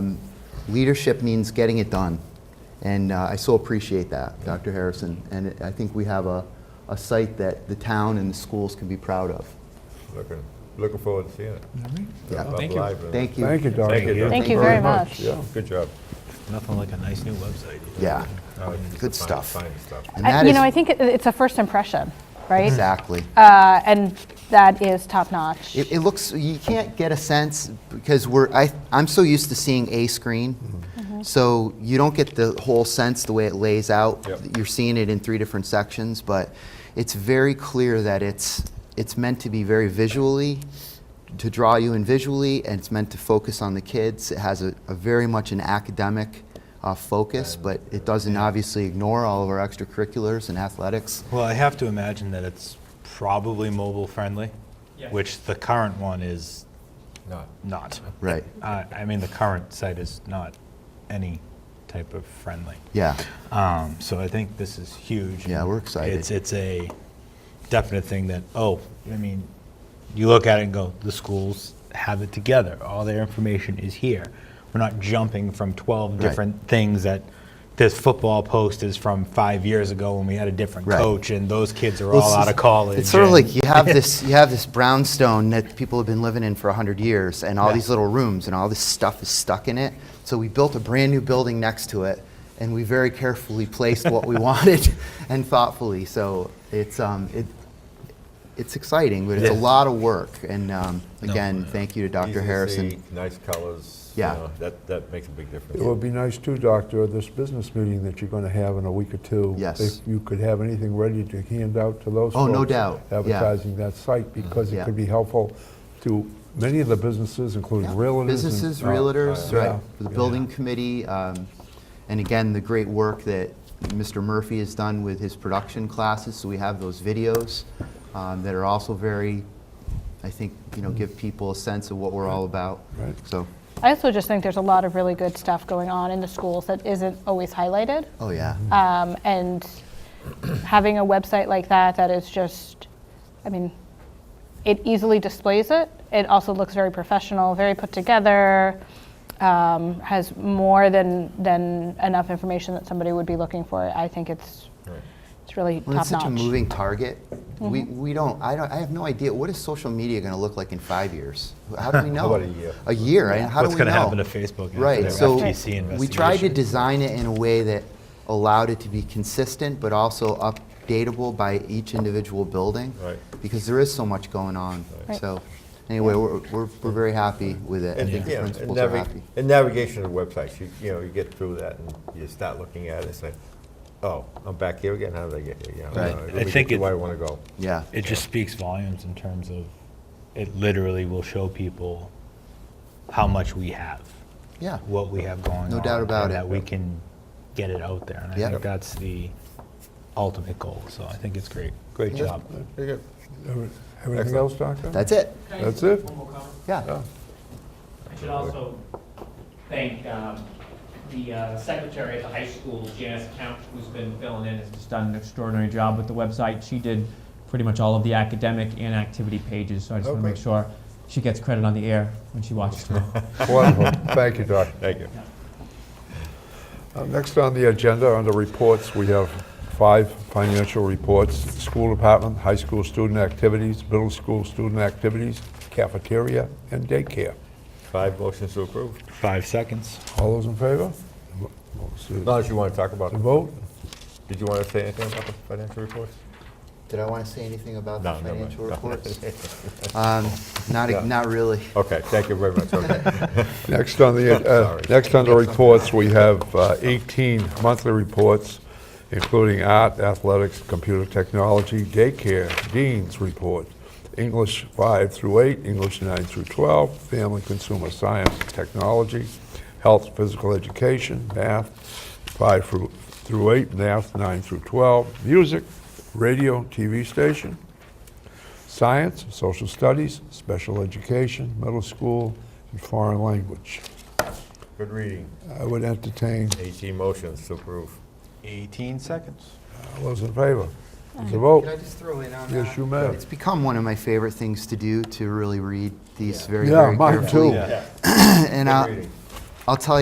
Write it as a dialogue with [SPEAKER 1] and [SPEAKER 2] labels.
[SPEAKER 1] Um, leadership means getting it done. And uh, I so appreciate that, Dr. Harrison. And it- I think we have a, a site that the town and the schools can be proud of.
[SPEAKER 2] Looking, looking forward to seeing it.
[SPEAKER 1] Yeah.
[SPEAKER 2] I'm
[SPEAKER 3] Thank you.
[SPEAKER 2] live in it.
[SPEAKER 1] Thank you.
[SPEAKER 4] Thank you, Dr.
[SPEAKER 2] Thank you, Dr.
[SPEAKER 5] Thank you very much.
[SPEAKER 2] Yeah, good job.
[SPEAKER 3] Nothing like a nice new website. Um,
[SPEAKER 1] Yeah.
[SPEAKER 2] No, it's
[SPEAKER 1] Good
[SPEAKER 2] fine-
[SPEAKER 1] stuff.
[SPEAKER 2] fine stuff.
[SPEAKER 1] And
[SPEAKER 5] I-
[SPEAKER 1] that
[SPEAKER 5] Uh, You
[SPEAKER 1] is-
[SPEAKER 5] know, I think it- it's a first impression, right?
[SPEAKER 1] Exactly.
[SPEAKER 5] Uh, And that is top-notch.
[SPEAKER 1] It, it looks, you can't get a sense because we're, I, I'm so used to seeing a screen. So you don't get the whole sense the way it lays out.
[SPEAKER 2] Yep.
[SPEAKER 1] You're seeing it in three different sections, but it's very clear that it's, it's meant to be very visually, to draw you in visually, and it's meant to focus on the kids. It has a, a very much an academic uh, focus, but it doesn't obviously ignore all of our extracurriculars and athletics.
[SPEAKER 3] Well, I have to imagine that it's probably mobile friendly,
[SPEAKER 6] Yes.
[SPEAKER 3] which the current one is
[SPEAKER 2] Not,
[SPEAKER 3] not.
[SPEAKER 1] Right.
[SPEAKER 3] Uh, I mean, the current site is not any type of friendly.
[SPEAKER 1] Yeah.
[SPEAKER 3] Um, so I think this is huge.
[SPEAKER 1] Yeah, we're excited.
[SPEAKER 3] It's it's a definite thing that oh, I mean, you look at it and go, the schools have it together. All their information is here. We're not jumping from 12
[SPEAKER 1] Right.
[SPEAKER 3] different things that this football post is from five years ago when we had a different
[SPEAKER 1] Right.
[SPEAKER 3] coach and those kids are
[SPEAKER 1] Well,
[SPEAKER 3] all
[SPEAKER 1] it's-
[SPEAKER 3] out of college.
[SPEAKER 1] It's sort of
[SPEAKER 3] and-
[SPEAKER 1] like you have this you have this brownstone that people have been living in for hundred years, and all
[SPEAKER 3] Yeah.
[SPEAKER 1] these little rooms and all this stuff is stuck in it. So we built a brand new building next to it, and we very carefully placed what we wanted and thoughtfully. So it's um, it. It's exciting, but it's a
[SPEAKER 3] Yeah.
[SPEAKER 1] lot of work. And um, again, thank you to Dr.
[SPEAKER 2] easy to
[SPEAKER 1] Harrison.
[SPEAKER 2] see, Nice colors.
[SPEAKER 1] Yeah.
[SPEAKER 2] you know, That, that makes a big
[SPEAKER 4] It would
[SPEAKER 2] difference.
[SPEAKER 4] be nice too, Doctor, this business meeting that you're going to have in a week or two.
[SPEAKER 1] Yes.
[SPEAKER 4] If you could have anything ready to hand out to those
[SPEAKER 1] Oh, no
[SPEAKER 4] folks
[SPEAKER 1] doubt. Yeah. Mm-hmm.
[SPEAKER 4] Advertising that site, because
[SPEAKER 1] Yeah.
[SPEAKER 4] it could be helpful to many of the businesses, including realtors. and-
[SPEAKER 1] Businesses,
[SPEAKER 4] Oh,
[SPEAKER 1] realtors,
[SPEAKER 4] yeah.
[SPEAKER 1] right, the building committee, um, and again, the great work that Mr. Murphy has done with his production classes, so we have those videos um, that are also very, I think, you know, give people a sense of what we're all about.
[SPEAKER 4] Right.
[SPEAKER 1] So,
[SPEAKER 5] I also just think there's a lot of really good stuff going on in the schools that isn't always highlighted.
[SPEAKER 1] oh, yeah.
[SPEAKER 5] Um, And having a website like that, that is just, I mean, it easily displays it. It also looks very professional, very put together, um, has more than, than enough information that somebody would be looking for. I think it's,
[SPEAKER 2] Right.
[SPEAKER 5] it's really
[SPEAKER 1] Well,
[SPEAKER 5] top-notch. Mm-hmm.
[SPEAKER 1] it's such a moving target. We, we don't, I don't, I have no idea, what is social media going to look like in five years? How do we know?
[SPEAKER 2] about a year?
[SPEAKER 1] A year, right? How do
[SPEAKER 3] What's
[SPEAKER 1] we know?
[SPEAKER 3] gonna happen to Facebook after
[SPEAKER 1] Right,
[SPEAKER 3] their
[SPEAKER 1] so
[SPEAKER 3] FTC
[SPEAKER 1] we tried to
[SPEAKER 3] investigation?
[SPEAKER 1] design it in a way that allowed it to be consistent, but also updatable by each individual building.
[SPEAKER 2] Right.
[SPEAKER 1] Because there is so much going on.
[SPEAKER 5] Right.
[SPEAKER 1] So, anyway, we're, we're, we're very happy with it. I
[SPEAKER 2] And,
[SPEAKER 1] think the
[SPEAKER 2] you know, and
[SPEAKER 1] principals are
[SPEAKER 2] navi-
[SPEAKER 1] happy.
[SPEAKER 2] And navigation of the websites, you, you know, you get through that and you start looking at it and say, oh, I'm back here again, how did I get here? You know,
[SPEAKER 1] Right.
[SPEAKER 2] uh, let
[SPEAKER 3] I
[SPEAKER 2] me get
[SPEAKER 3] think
[SPEAKER 2] to
[SPEAKER 3] it-
[SPEAKER 2] Where I want to go.
[SPEAKER 1] Yeah,
[SPEAKER 3] It just speaks volumes in terms of it literally will show people how much we have,
[SPEAKER 1] yeah,
[SPEAKER 3] what we have going on.
[SPEAKER 1] No doubt about
[SPEAKER 3] and
[SPEAKER 1] it.
[SPEAKER 3] That we can get it out there. And I
[SPEAKER 1] Yeah.
[SPEAKER 3] think that's the ultimate goal. So I think it's great. Great
[SPEAKER 1] Yeah.
[SPEAKER 3] job.
[SPEAKER 2] Very good.
[SPEAKER 4] Every- Everything
[SPEAKER 2] Excellent.
[SPEAKER 4] else, Doctor?
[SPEAKER 1] that's it,
[SPEAKER 6] Can I
[SPEAKER 4] That's
[SPEAKER 6] make
[SPEAKER 4] it.
[SPEAKER 6] One more comment.
[SPEAKER 1] yeah.
[SPEAKER 6] I should also thank um, the uh, secretary at the high school, Janice Count, who's been filling in, has just done an extraordinary job with the website. She did pretty much all of the academic and activity pages, so I just want to make
[SPEAKER 2] Okay.
[SPEAKER 6] sure she gets credit on the air when she watches tomorrow.
[SPEAKER 4] Wonderful. Thank you, Doctor.
[SPEAKER 2] Thank you.
[SPEAKER 4] Uh, Next on the agenda, under reports, we have five financial reports. School department, high school student activities, middle school student activities, cafeteria, and daycare.
[SPEAKER 2] Five motions to approve.
[SPEAKER 3] Five seconds.
[SPEAKER 4] All those in favor? Let's see.
[SPEAKER 2] Unless you want to talk about,
[SPEAKER 4] The vote?
[SPEAKER 2] did you want to say anything about the financial reports?
[SPEAKER 1] Did I want to say anything about the
[SPEAKER 2] No, never mind.
[SPEAKER 1] financial
[SPEAKER 2] No.
[SPEAKER 1] reports? Um, Not, not really.
[SPEAKER 2] Okay, thank you very much, okay.
[SPEAKER 4] Next on the, uh,
[SPEAKER 2] Sorry.
[SPEAKER 4] next on the reports, we have uh, 18 monthly reports, including art, athletics, computer technology, daycare, dean's report, English 5 through 8, English 9 through 12, family, consumer science, technology, health, physical education, math 5 through through 8, math 9 through 12, music, radio, TV station, science, social studies, special education, middle school, and foreign language.
[SPEAKER 2] Good reading.
[SPEAKER 4] I would entertain,
[SPEAKER 2] 18 motions to approve.
[SPEAKER 3] 18 seconds.
[SPEAKER 4] all those in favor? It's a
[SPEAKER 1] Can I
[SPEAKER 4] vote.
[SPEAKER 1] just throw in on that?
[SPEAKER 4] Yes, you may.
[SPEAKER 1] It's become one of my favorite things to do, to really read these very,
[SPEAKER 4] Yeah,
[SPEAKER 1] very
[SPEAKER 4] mine
[SPEAKER 1] carefully.
[SPEAKER 4] too.
[SPEAKER 2] Yeah.
[SPEAKER 1] And
[SPEAKER 2] Good
[SPEAKER 1] I'll,
[SPEAKER 2] reading.
[SPEAKER 1] I'll tell you.